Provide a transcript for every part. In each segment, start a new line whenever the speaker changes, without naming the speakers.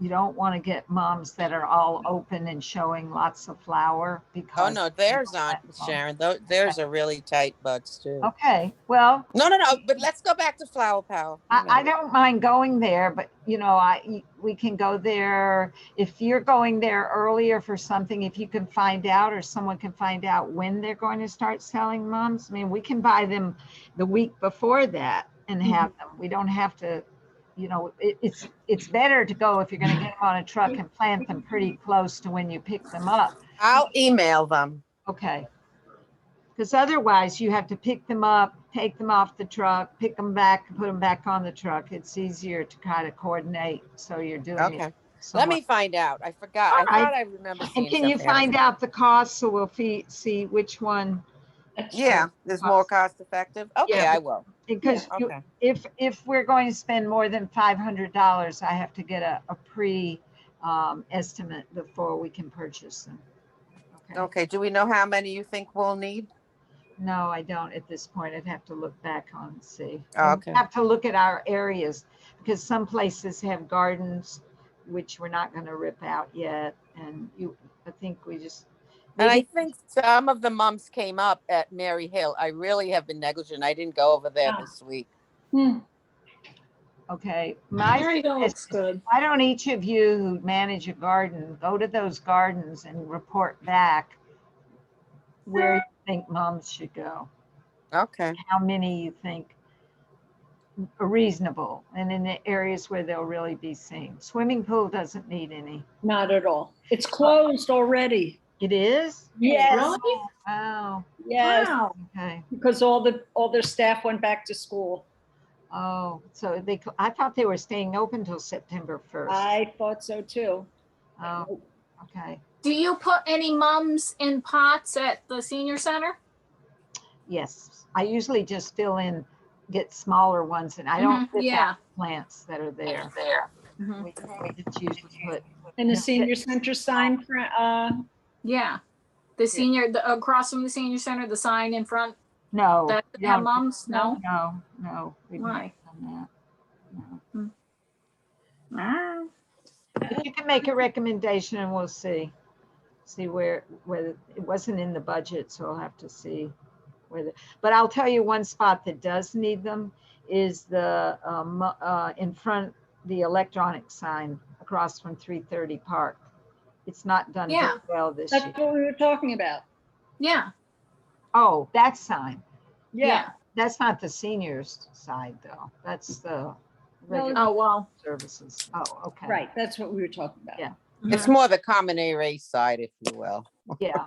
you don't want to get moms that are all open and showing lots of flower
Oh,
because.
no, there's
don't
not,
let them.
Sharon. Tho- There's a really tight buds too.
Okay, well,
No, no, no, but let's go back to Flower Power.
I, I don't mind going there, but you know, I, we can go there. If you're going there earlier for something, if you can find out or someone can find out when they're going to start selling mums, I mean, we can buy them the week before that and have them. We don't have to, you know, it, it's, it's better to go if you're gonna get them on a truck and plant them pretty close to when you pick them up.
I'll email them.
Okay. Because otherwise you have to pick them up, take them off the truck, pick them back, and put them back on the truck. It's easier to kind of coordinate. So you're doing it.
Okay, let me
somewhat-
find out. I forgot. I
All right.
thought I remember
And
seeing
can you
something.
find out the cost so we'll fee- see which one?
Yeah, there's more cost effective. Okay,
Yeah.
I will.
Because you-
Okay.
if, if we're going to spend more than five hundred dollars, I have to get a, a pre um, estimate before we can purchase them. Okay.
Okay, do we know how many you think we'll need?
No, I don't at this point. I'd have to look back on and see.
Oh,
And
okay.
Have to look at our areas because some places have gardens which we're not gonna rip out yet and you, I think we just.
And I
maybe-
think some of the mums came up at Mary Hill. I really have been negligent. I didn't go over there
Ah.
this week.
Hmm,
Okay, my,
Mary Hill looks good.
why don't each of you who manage a garden, go to those gardens and report back where you think moms should go?
Okay,
how many you think are reasonable and in the areas where they'll really be seen. Swimming pool doesn't need any.
Not at all. It's
Uh,
closed already.
It is?
Yes,
Wow,
yes,
Oh, okay.
because all the, all their staff went back to school.
Oh, so they, cl- I thought they were staying open till September 1st.
I thought so too.
Oh, okay.
Do you put any mums in pots at the senior center?
Yes, I usually just fill in, get smaller ones and I don't
Mhm,
rip
yeah.
out plants that are there. Mm-hmm.
Mhm.
We we just usually put,
And the
Yeah.
senior center sign, for, uh,
Yeah. The senior, the, across from the senior center, the sign in front,
no.
that,
we
that
don't-
mums, no?
No, no. we've never
Why?
done that. No.
Hmm. Ah,
You can make a recommendation and we'll see. See where, whether, it wasn't in the budget, so I'll have to see whether, but I'll tell you one spot that does need them is the, um, uh, in front, the electronic sign across from three thirty Park. It's not done very
Yeah.
well this
that's
year.
what we were talking about.
Yeah,
Oh, that sign.
Yeah,
yeah.
That's not the seniors side though. That's the regular
Oh, well.
services. Oh, okay.
right, that's what we were talking about.
Yeah.
Mm-hmm.
It's more the common area side, if you will.
Yeah.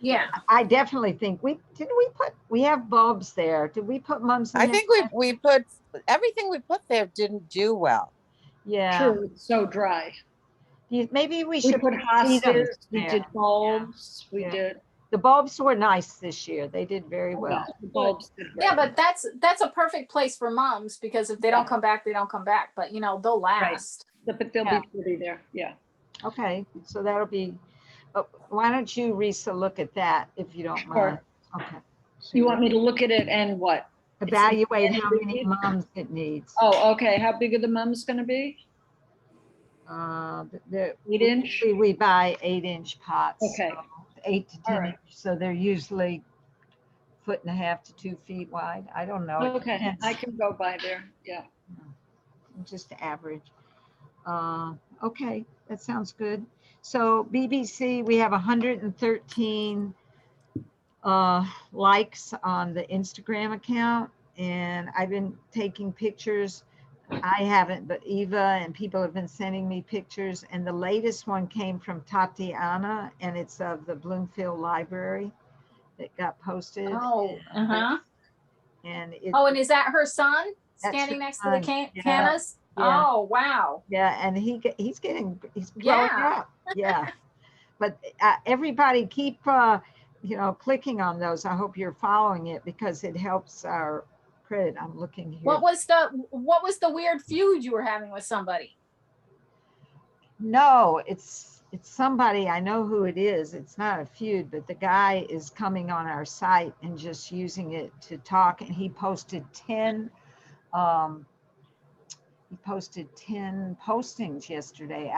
Yeah,
I definitely think we, did we put, we have bulbs there. Did we put mums in?
I
there?
think we, we put, everything we put there didn't do well.
Yeah,
True, it's so dry.
You- maybe we
We
should.
put
see them
hostas, we
there.
did bulbs, we
Yeah.
did.
The bulbs were nice this year. They did very well.
the bulbs did
yeah,
great.
but that's, that's a perfect place for moms because if they don't come back, they don't come back, but you know, they'll last.
But they'll
yeah.
be pretty there, yeah.
Okay, so that'll be, uh, why don't you, Risa, look at that if you don't
Sure.
mind? Okay.
You want me to look at it and what?
Evaluate how
it's-
many mums it needs.
Oh, okay, how big are the mums gonna be?
Uh, the-
Eight inch?
We- We buy eight inch pots.
Okay.
so Eight to
All
10,
right.
inch, so they're usually foot and a half to two feet wide. I don't know. It
Okay,
depends.
I can go by there, yeah.
just average. Uh, Okay, that sounds good. So BBC, we have 113 uh, likes on the Instagram account, and I've been taking pictures. I haven't, but Eva and people have been sending me pictures, and the latest one came from Tatiana, and it's of the Bloomfield Library that got posted.
Oh, uh-huh.
And it,
Oh, and is that her son
That's her
standing next to
son,
the can-
yeah,
cannas?
yeah.
Oh, wow.
Yeah, and he ge- he's getting he's growing
Yeah.
up. Yeah, but uh, everybody keep uh, you know clicking on those. I hope you're following it because it helps our credit. I'm looking here.
What was the, what was the weird feud you were having with somebody?
no, it's it's somebody I know who it is. It's not a feud, but the guy is coming on our site and just using it to talk. And he posted ten um, he posted ten postings yesterday